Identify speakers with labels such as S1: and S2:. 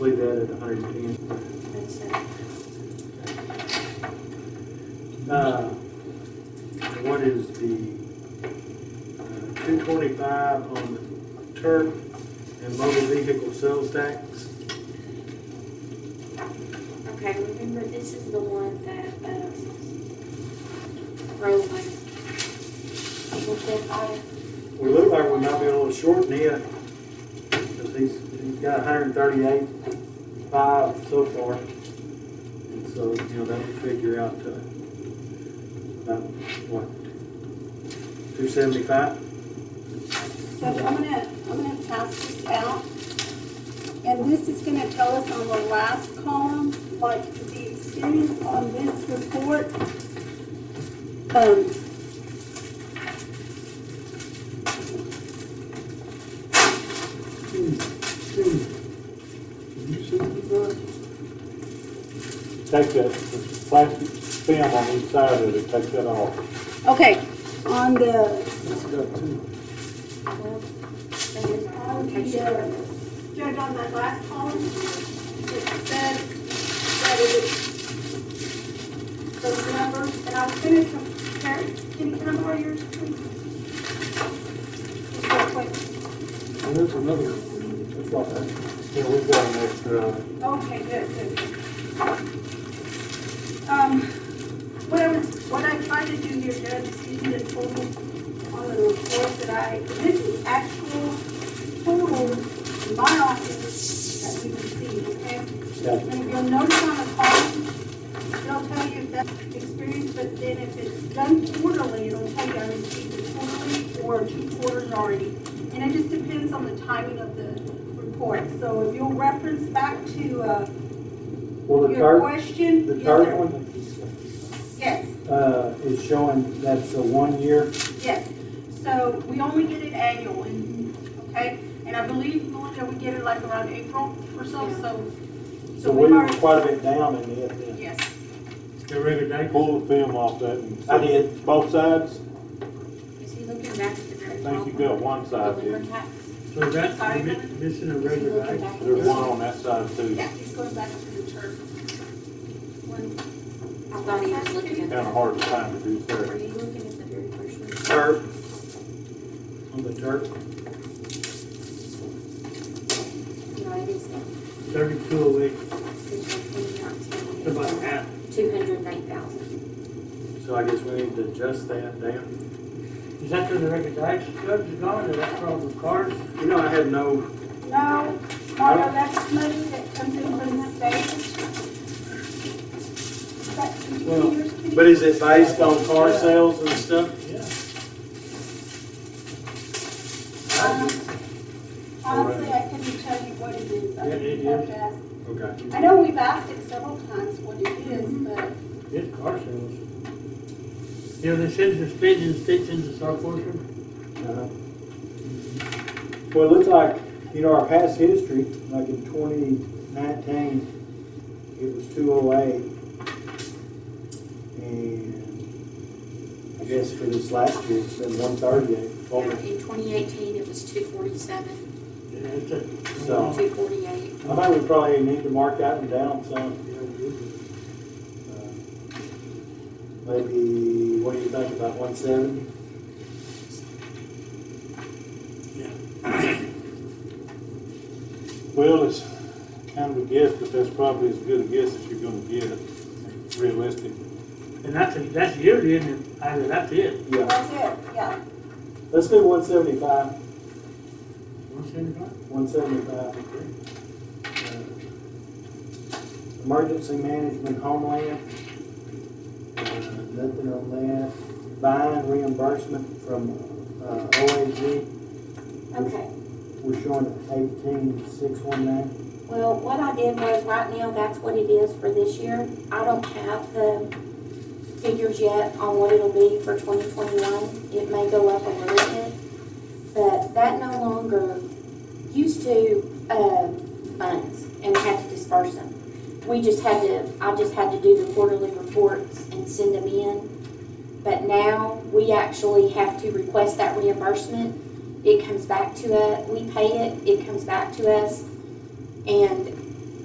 S1: Leave that at hundred and ten.
S2: That's it.
S1: Uh, What is the uh, two twenty-five on turf and motor vehicle sales tax?
S2: Okay, remember, this is the one that, um, Roland, people said, oh,
S1: We look like we might be a little short in it, because he's, he's got hundred and thirty-eight, five so far. And so, you know, that would figure out, uh, about, what, two seventy-five?
S3: So I'm gonna, I'm gonna pass this out. And this is gonna tell us on the last column, like the experience on this report. Um.
S4: Take that plastic film on each side of it, take that off.
S3: Okay, on the,
S1: That's got two.
S2: and then
S3: on the, uh, Judge, on that last column, it says that it is those numbers, and I was gonna compare, can you come over yours, please? Just real quick.
S1: There's another.
S4: Yeah, we've got an extra, uh,
S3: Okay, good, good, good. Um, what I was, what I tried to do here, Judge, is using the total on the report that I, this is actual total in my office that we received, okay? And if you'll notice on the column, it'll tell you if that's experience, but then if it's done quarterly, it'll tell you I received it quarterly or two quarters already. And it just depends on the timing of the report. So if you'll reference back to, uh,
S1: Well, the
S3: your
S1: third,
S3: question.
S1: the
S3: yes,
S1: third
S3: sir.
S1: one,
S3: Yes,
S1: uh, is showing that's a one-year,
S3: yes. So we only get it annual, and, okay? And I believe, Melinda, we get it like around April or so, so.
S1: so
S3: we've
S1: we were
S3: already-
S1: quite a bit down in it then.
S3: Yes.
S1: You read it,
S4: pull the film off that and.
S1: I did.
S4: Both sides?
S2: Is he looking back to the
S4: I
S2: very top?
S4: think you've got one side,
S2: The
S4: didn't
S2: liver
S4: you?
S2: tax?
S5: So that's
S3: Sorry.
S5: mi- missing a
S2: Is he
S5: regular
S2: looking
S5: item.
S2: back at
S4: There's
S2: this
S4: one on that side too,
S3: Yeah, he's going back to the church. One,
S2: I thought he was looking at
S4: kinda
S2: that.
S4: hard to find to do
S2: Are
S4: there.
S2: you looking at the very first one?
S1: Turf. On the turf.
S2: No, it is.
S5: Thirty-two oh a week, it's about half.
S2: Two hundred and eight thousand.
S1: So I guess we need to adjust that down.
S5: Is that where the regular tax judge is going, or that's from the cars?
S1: You know, I had no,
S3: No, Margo, that's money that comes in from the state. But can you
S1: Well,
S3: see yours, Kitty?
S1: but is it based on car sales and stuff?
S5: Yeah.
S3: Um, Honestly, I couldn't tell you what it is. I
S5: Yeah, it
S3: would have
S5: is.
S3: to ask.
S1: Okay.
S3: I know we've asked it several times what it is, but
S5: It's car sales. You know, they send the speed and stitch into our portion.
S1: Uh-huh. Well, it looks like, you know, our past history, like in twenty nineteen, it was two oh eight. And I guess for this last year, it's been one thirty-eight.
S2: In twenty eighteen, it was two forty-seven,
S5: Yeah, it's a-
S1: So-
S2: two forty-eight.
S1: I think we probably need to mark that one down some.
S5: Yeah, we do.
S1: Uh, Maybe, what do you think, about one seventy?
S4: Well, it's kind of a guess, but that's probably as good a guess as you're gonna get, realistic.
S5: And that's, a- that's yearly, isn't it? I mean, that's it.
S1: Yeah,
S3: that's it, yeah.
S1: let's do one seventy-five,
S5: One seventy-five?
S1: one seventy-five. Uh, Emergency management homeland. Uh, Nothing on that. Vine reimbursement from uh, OAG,
S2: Okay,
S1: we're showing eighteen six one nine.
S2: well, what I did was, right now, that's what it is for this year. I don't have the figures yet on what it'll be for twenty twenty-one. It may go up a little bit, but that no longer used to, um, funds, and we had to disperse them. We just had to, I just had to do the quarterly reports and send them in. But now, we actually have to request that uh, reimbursement. It comes back to us, we pay it, it comes back to us. And